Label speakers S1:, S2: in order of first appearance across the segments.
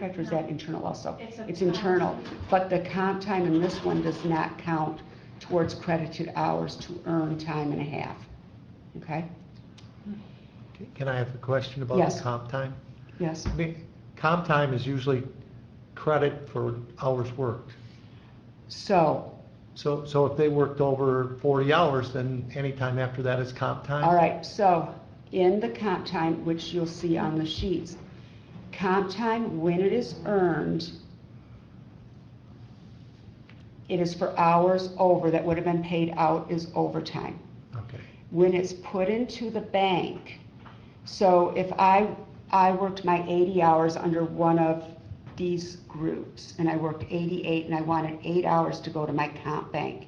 S1: Correct, or is that internal also?
S2: It's a-
S1: It's internal, but the comp time in this one does not count towards credited hours to earn time and a half. Okay?
S3: Can I have a question about
S1: Yes.
S3: the comp time?
S1: Yes?
S3: I mean, comp time is usually credit for hours worked.
S1: So,
S3: So, so if they worked over 40 hours, then any time after that is comp time?
S1: all right, so in the comp time, which you'll see on the sheets, comp time, when it is earned, it is for hours over that would have been paid out is overtime.
S3: Okay,
S1: when it's put into the bank. So if I, I worked my 80 hours under one of these groups, and I worked 88, and I wanted eight hours to go to my comp bank,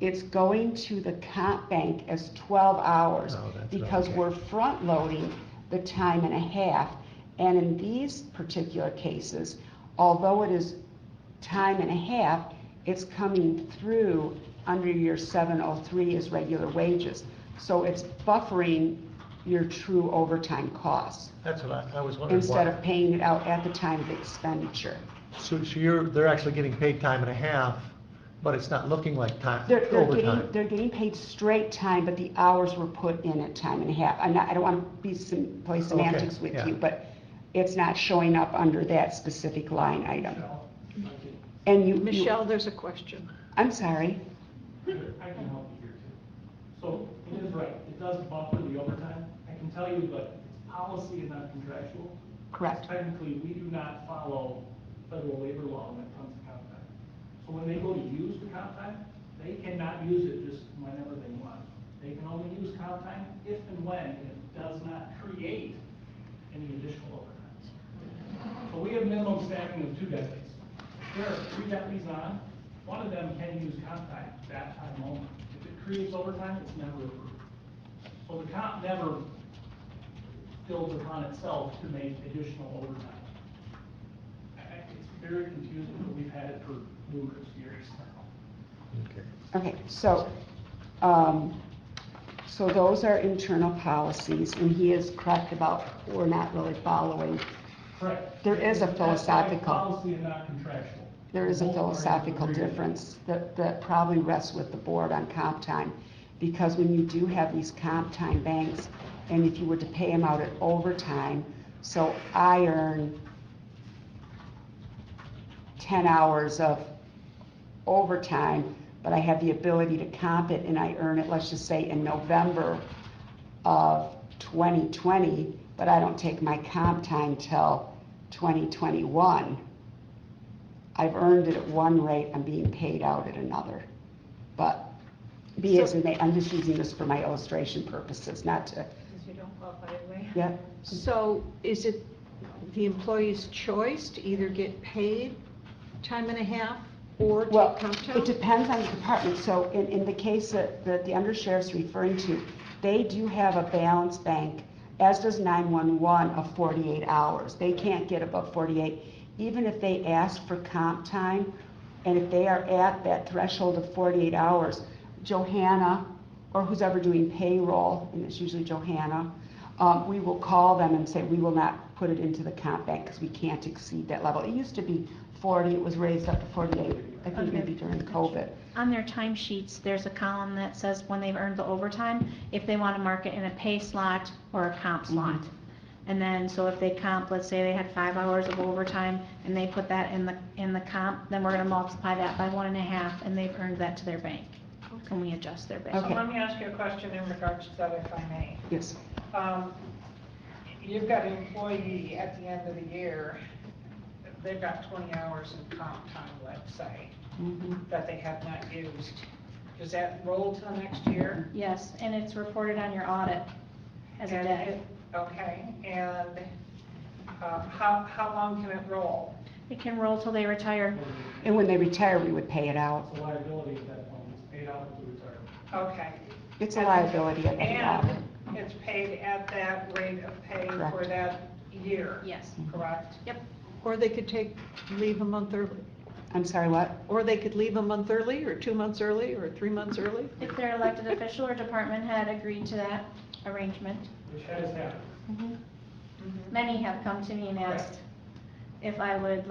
S1: it's going to the comp bank as 12 hours.
S3: Oh, that's right,
S1: Because
S3: okay.
S1: we're front-loading the time and a half. And in these particular cases, although it is time and a half, it's coming through under your 703 as regular wages. So it's buffering your true overtime costs
S3: that's what I, I was wondering.
S1: instead
S3: why.
S1: of paying it out at the time of expenditure.
S3: So, so you're, they're actually getting paid time and a half, but it's not looking like time,
S1: They're, they're getting,
S3: overtime.
S1: they're getting paid straight time, but the hours were put in at time and a half. I'm not, I don't want to be some, play semantics with
S3: yeah.
S1: you, but it's not showing up under that specific line item. And you. you-
S4: Michelle, there's a question.
S1: I'm sorry.
S5: I can help you here too. So it is right, it does buffer the overtime. I can tell you, but it's policy and not contractual.
S1: Correct.
S5: Technically, we do not follow federal labor law when it comes to comp time. So when they go to use the comp time, they cannot use it just whenever they want. They can only use comp time if and when it does not create any additional overtime. So we have minimum staffing of two deputies. There are three deputies on, one of them can use comp time that time only. If it creates overtime, it's never approved. So the comp never builds upon itself to make additional overtime. I- I- It's very confusing, but we've had it for numerous years now.
S3: Okay.
S1: Okay, so, um, so those are internal policies, and he is correct about we're not really following.
S5: Correct.
S1: There is a
S5: That's why
S1: philosophical-
S5: Policy and not contractual.
S1: There is a
S5: Both parties
S1: philosophical
S5: agree.
S1: difference that, that probably rests with the board on comp time. Because when you do have these comp time banks, and if you were to pay them out at overtime, so I earn ten hours of overtime, but I have the ability to comp it and I earn it, let's just say in November of 2020, but I don't take my comp time till 2021. I've earned it at one rate, I'm being paid out at another. But be as
S4: So-
S1: in may, I'm just using this for my illustration purposes, not to,
S2: Because you don't qualify anyway.
S1: yeah,
S4: So is it the employee's choice to either get paid time and a half or take
S1: Well,
S4: comp
S1: it
S4: time?
S1: depends on the department, so in, in the case that, that the undersheriff's referring to, they do have a balance bank, as does nine-one-one, of forty-eight hours. They can't get above forty-eight, even if they ask for comp time, and if they are at that threshold of forty-eight hours, Johanna, or who's ever doing payroll, and it's usually Johanna, um, we will call them and say, we will not put it into the comp bank because we can't exceed that level. It used to be forty, it was raised up to forty-eight, I think
S2: Okay.
S1: maybe during COVID.
S6: On their timesheets, there's a column that says when they've earned the overtime, if they want to mark it in a pay slot or a comp
S4: Mm-hmm.
S6: slot. And then, so if they comp, let's say they had five hours of overtime and they put that in the, in the comp, then we're going to multiply that by one and a half and they've earned that to their bank. And we adjust their
S1: Okay.
S6: bank.
S7: So let me ask you a question in regards to that, if I may.
S1: Yes,
S7: Um, You've got an employee at the end of the year, they've got 20 hours in comp time, let's say, that they have not used. Does that roll to the next year?
S6: Yes, and it's reported on your audit as a
S7: And
S6: day.
S7: it- Okay, and uh, how, how long can it roll?
S6: It can roll till they retire.
S1: and when they retire, we would pay it out.
S5: It's a liability at that point, it's paid out with the retirement.
S7: Okay.
S1: It's a liability at the
S7: And it's paid at that rate of pay for
S1: Correct.
S7: that year?
S6: Yes.
S7: Correct?
S4: Or they could take, leave a month early.
S1: I'm sorry, what?
S4: Or they could leave a month early, or two months early, or three months early.
S6: If their elected official or department head agreed to that arrangement.
S5: Which has happened.
S7: Mm-hmm.
S6: Many have come to me and asked, if I would